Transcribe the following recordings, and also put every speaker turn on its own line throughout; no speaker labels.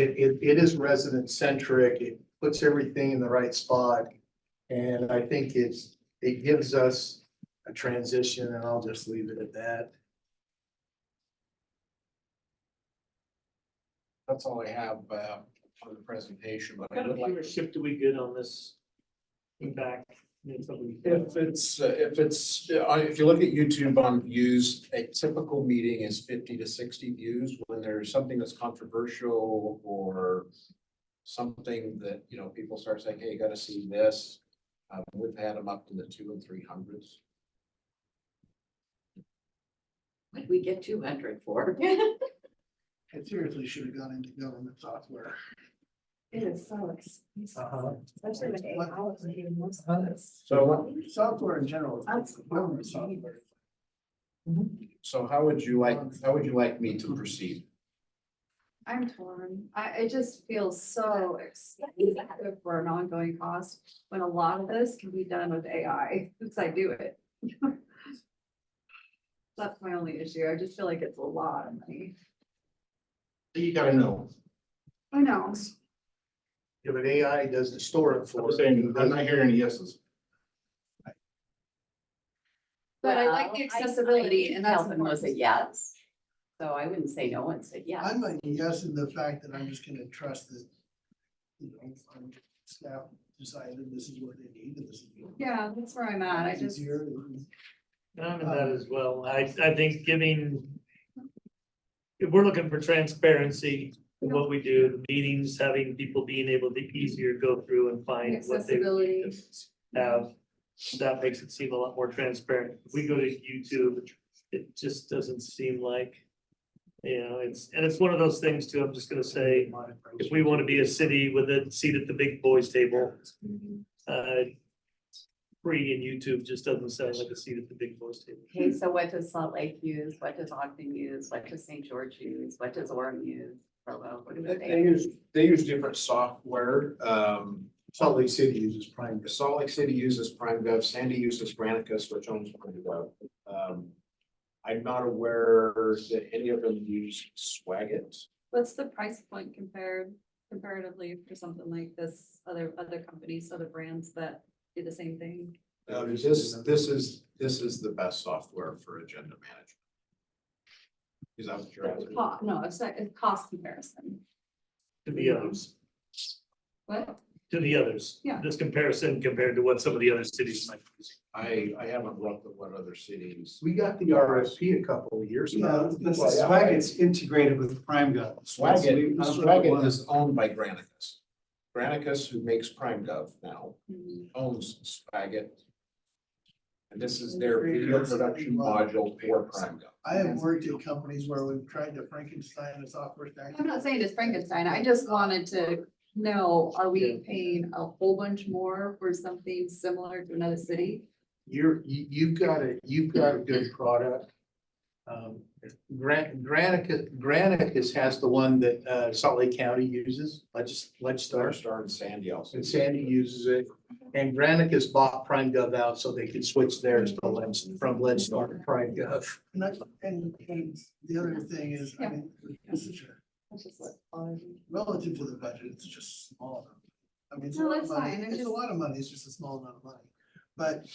It, it, it is resident centric, it puts everything in the right spot. And I think it's, it gives us a transition and I'll just leave it at that.
That's all I have uh, for the presentation, but
What
I
kind of
would like,
viewership do we get on this? Back. in somebody-
if it's, uh, if it's, uh, if you look at YouTube on views, a typical meeting is fifty to sixty views. When there's something that's controversial or something that, you know, people start saying, hey, you gotta see this. Uh, We've had them up to the two and three hundreds.
What did we get two hundred for?
It seriously should have gone into government software.
It is so expensive,
Uh-huh.
especially with
What-
AI, it's even more
Uh-huh.
expensive.
So,
Software in general.
That's-
Government software.
so how would you like, how would you like me to proceed?
I'm torn. I, it just feels so expensive for an ongoing cost when a lot of this can be done with AI, since I do it. That's my only issue. I just feel like it's a lot of money.
You gotta know.
I know.
Yeah, but AI doesn't store it for.
I'm saying, I'm not hearing any yeses.
But I like
Well,
the
I- I
accessibility
think
and that's
Calvin was a
important.
yes, so I wouldn't say no one said yes.
I'm a yes in the fact that I'm just gonna trust that, you know, um, staff decided this is what they need and this is. what-
Yeah, that's where I'm at. I
It's
just,
easier and-
And I'm in that
um,
as well. I, I think giving. If we're looking for transparency in what we do, the meetings, having people being able to easier go through and find what they.
Accessibility.
Have, that makes it seem a lot more transparent. If we go to YouTube, it just doesn't seem like. You know, it's, and it's one of those things too, I'm just gonna say, if we want to be a city with a seat at the big boys table. uh, Free and YouTube just doesn't sound like a seat at the big boys table.
Okay, so what does Salt Lake use? What does Ogden use? What does St. George use? What does Orem use? Provo, what do
They- They
they?
use, they use different software. Um,
Salt Lake City uses prime.
Salt Lake City uses Prime Gov, Sandy uses Granicus, which owns Prime Gov. Um, I'm not aware that any of them use Swagit.
what's the price point compared comparatively for something like this, other, other companies, other brands that do the same thing?
Uh, this, this is, this is the best software for agenda management. Is that what you're asking?
Cost, no, it's like, it's cost comparison.
To the others,
What?
to the others.
Yeah.
This comparison compared to what some of the other cities might use.
I, I haven't looked at what other cities.
We got the RFP a couple of years
Yeah,
ago.
the Swagit's integrated with Prime Gov.
Swagit,
That's what it
Swagit
was.
is owned by Granicus. Granicus, who makes Prime Gov now,
Mm-hmm.
owns Swagit. And this is their video production module for Prime Gov.
I have worked at companies where we've tried to Frankenstein a software stack.
I'm not saying it's Frankenstein, I just wanted to know, are
Yeah.
we paying a whole bunch more for something similar to another city?
You're, you, you've got a, you've got a good product. Um, Gran- Granicus, Granicus has the one that, uh, Salt Lake County uses, Legis,
Star
Legistar.
Star and Sandy also.
And Sandy uses it, and Granicus bought Prime Gov out so they could switch theirs to Lens, from Legstar to Prime Gov.
And that's, and, and the other thing is, I mean, it's such a,
Which is what bothers me.
relative to the budget, it's just small. amount. I mean, it's a
No,
lot of
that's
money,
fine, I'm
it's a
just-
lot of money, it's just a small amount of money, but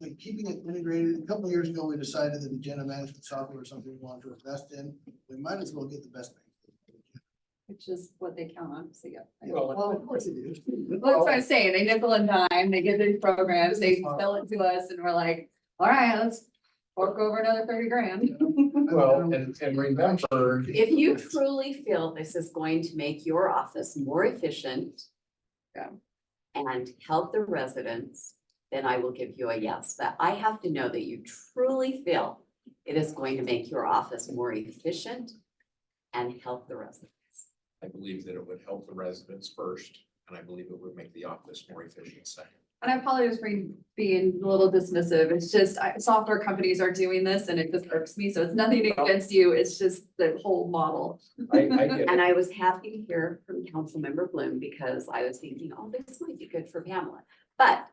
like keeping it integrated, a couple of years ago, we decided that agenda management software was something we wanted to invest in, we might as well get the best thing.
Which is what they count on, so yeah. I-
Well,
Well, of course it is.
Well, That's what I'm saying, they nickel and dime, they get their programs, they sell it to us and we're like, all right, let's fork over another thirty grand.
Well, and, and remember,
If you truly feel this is going to make your office more efficient.
Yeah.
And help the residents, then I will give you a yes, but I have to know that you truly feel it is going to make your office more efficient. And help the residents.
I believe that it would help the residents first, and I believe it would make the office more efficient second.
And I apologize for being a little dismissive, it's just, I, software companies are doing this and it just irks me, so it's nothing
Oh.
against you, it's just the whole model.
I, I get it.
And I was happy to hear from Councilmember Bloom because I was thinking, oh, this might be good for Pamela. But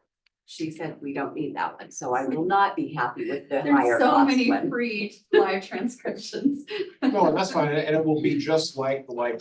she said, we don't need that one, so I will not be happy with the higher
There's so
cost
many
one.
free live transcriptions.
No, and that's fine, and it will be just like the live